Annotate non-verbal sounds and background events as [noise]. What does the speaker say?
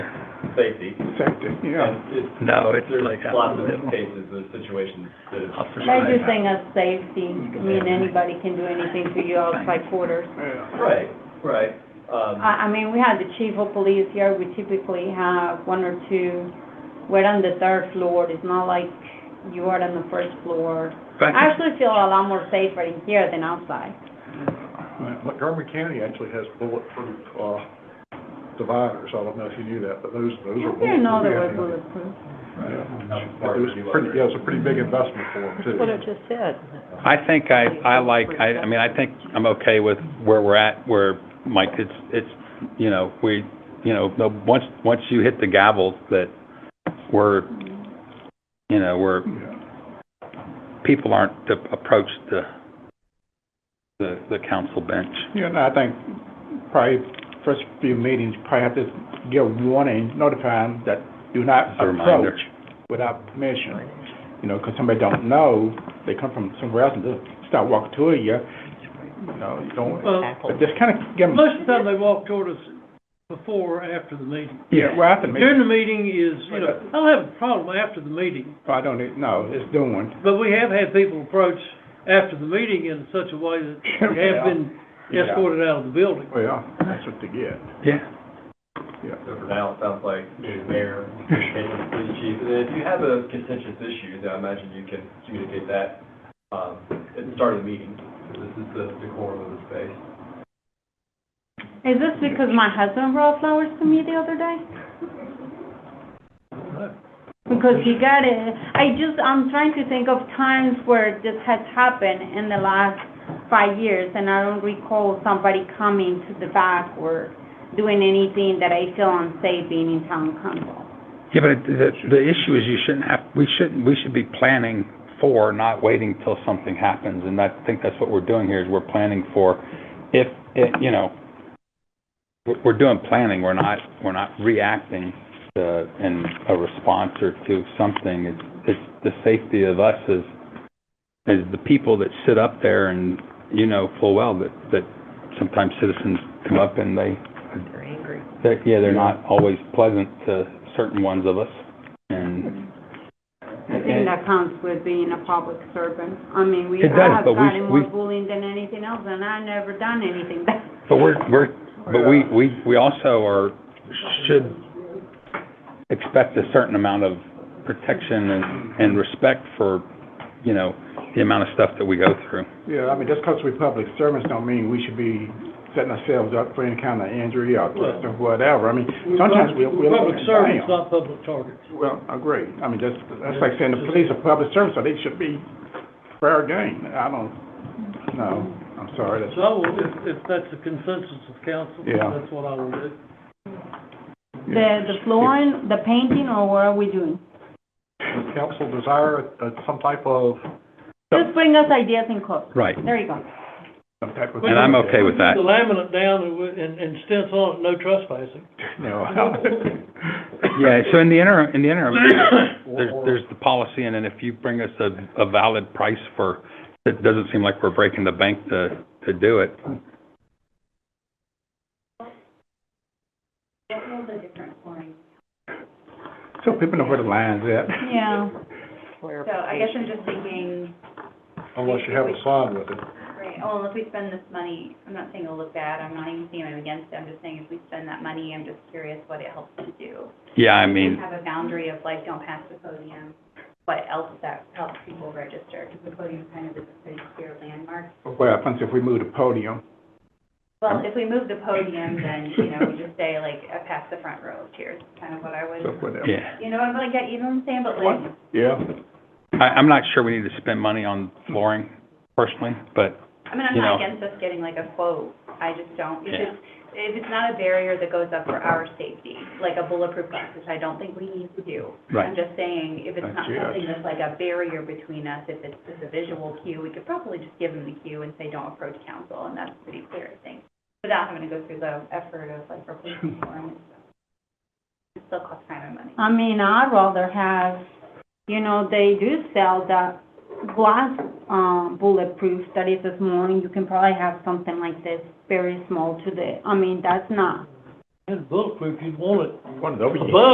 safety. Safety, yeah. And it- No, but it's there's like out Lots in the middle. of cases, there's situations that it's Officer They're side. just saying of safety, I mean, anybody can do anything to you outside quarters. Yeah. Right, right. Um, I, I mean, we had the chief of police here, we typically have one or two, we're on the third floor, it's not like you are on the first floor. But I actually feel a lot more safer in here than outside. Montgomery County actually has bulletproof, uh, dividers, I don't know if you knew that, but those, I those are. didn't know there were bulletproof. bulletproof. Yeah. Not far It was from you, pretty, other- yeah, it was a pretty big investment for them too. That's what I just said. I think I, I like, I, I mean, I think I'm okay with where we're at, where, Mike, it's, it's, you know, we, you know, the, once, once you hit the gavel that we're, you know, we're, Yeah. people aren't to approach the, the, the council bench. Yeah, no, I think probably first few meetings, probably have to give warning, notify them that do not As a reminder. approach without permission. You know, 'cause somebody don't know, they come from somewhere else and just start walking toward you, you know, you don't, Well, but just kind of give them. most of the time they walk toward us before or after the meeting. Yeah, well, after the meeting, During the meeting is, you know, I don't have a problem after the meeting, I don't, even- no, it's doing. but we have had people approach after the meeting in such a way that [laughs] they have been Yeah. escorted out of the building. Well, that's what they get, [laughs] Yeah. yeah. So for now, it sounds like the mayor, and the police chief, and then if you have a contentious issue, then I imagine you can communicate that, um, at the start of the meeting. This is the decorum of the space. Is this because my husband brought flowers to me the other day? Because he got it, I just, I'm trying to think of times where this has happened in the last five years, and I don't recall somebody coming to the back or doing anything that I feel unsafe being in town council. Yeah, but the, the issue is you shouldn't have, we shouldn't, we should be planning for, not waiting till something happens. And I think that's what we're doing here, is we're planning for, if, it- you know, we're, we're doing planning, we're not, we're not reacting to, in a response or to something. It's, it's the safety of us as, as the people that sit up there and, you know, full well that, that sometimes citizens come up and they, They're angry. they're, yeah, they're not always pleasant to certain ones of us, and. I think that counts with being a public servant. I mean, we, It does, I have but we- gotten more we- bullying than anything else, and I never done anything bad. But we're, we're, but we, we, we also are, should expect a certain amount of protection and, and respect for, you know, the amount of stuff that we go through. Yeah, I mean, just 'cause we're public servants don't mean we should be setting ourselves up for any kind of injury or Well- or whatever. I mean, sometimes we, we look Public at them. servants, not public targets. Well, agree. I mean, just, that's like saying the police are public servants, so they should be fair game. I don't, no, I'm sorry, that's, So I will, if, if that's the consensus of council, Yeah. that's what I will do. The, the flooring, the painting, or what are we doing? Does council desire uh, some type of, Just bring us ideas and quotes. Right. There you go. some type of. And I'm okay with that. The laminate down and, we- and and stencil it, no trespassing. No. [laughs] Yeah, so in the interim, in the interim, there's, there's the policy, and then if you bring us a, a valid price for, it doesn't seem like we're breaking the bank to, to do it. So people know where the line's at, Yeah. So I guess I'm just thinking, unless you have a sign with it. right, oh, well, if we spend this money, I'm not saying it'll look bad, I'm not even saying I'm against it, I'm just saying if we spend that money, I'm just curious what it helps to do. Yeah, I If we mean, Have a boundary of like, don't pass the podium, what else that helps people register, because the podium kind of is a pretty clear landmark. What happens if we move the podium? Well, if we move the podium, then, you know, we just say like, uh, pass the front row, cheers, kind of what I So would, whatever. yeah. you know, I'm gonna get, you know what I'm saying, but like, Yeah. I, I'm not sure we need to spend money on flooring personally, but, I mean, I'm you know. not against us getting like a quote, I just don't, Yeah. because if it's not a barrier that goes up for our safety, like a bulletproof glass, which I don't think we need to do. right, I'm just saying, if it's That's not it. something that's like a barrier between us, if it's just a visual cue, we could probably just give them the cue and say, don't approach council, and that's pretty clear, I think. Without having to go through the effort of like replacing form and stuff. It still costs time and money. I mean, I'd rather have, you know, they do sell that glass, um, bulletproof that is as small, and you can probably have something like this, very small to the, I mean, that's not And bulletproof, you'd want it One of those. above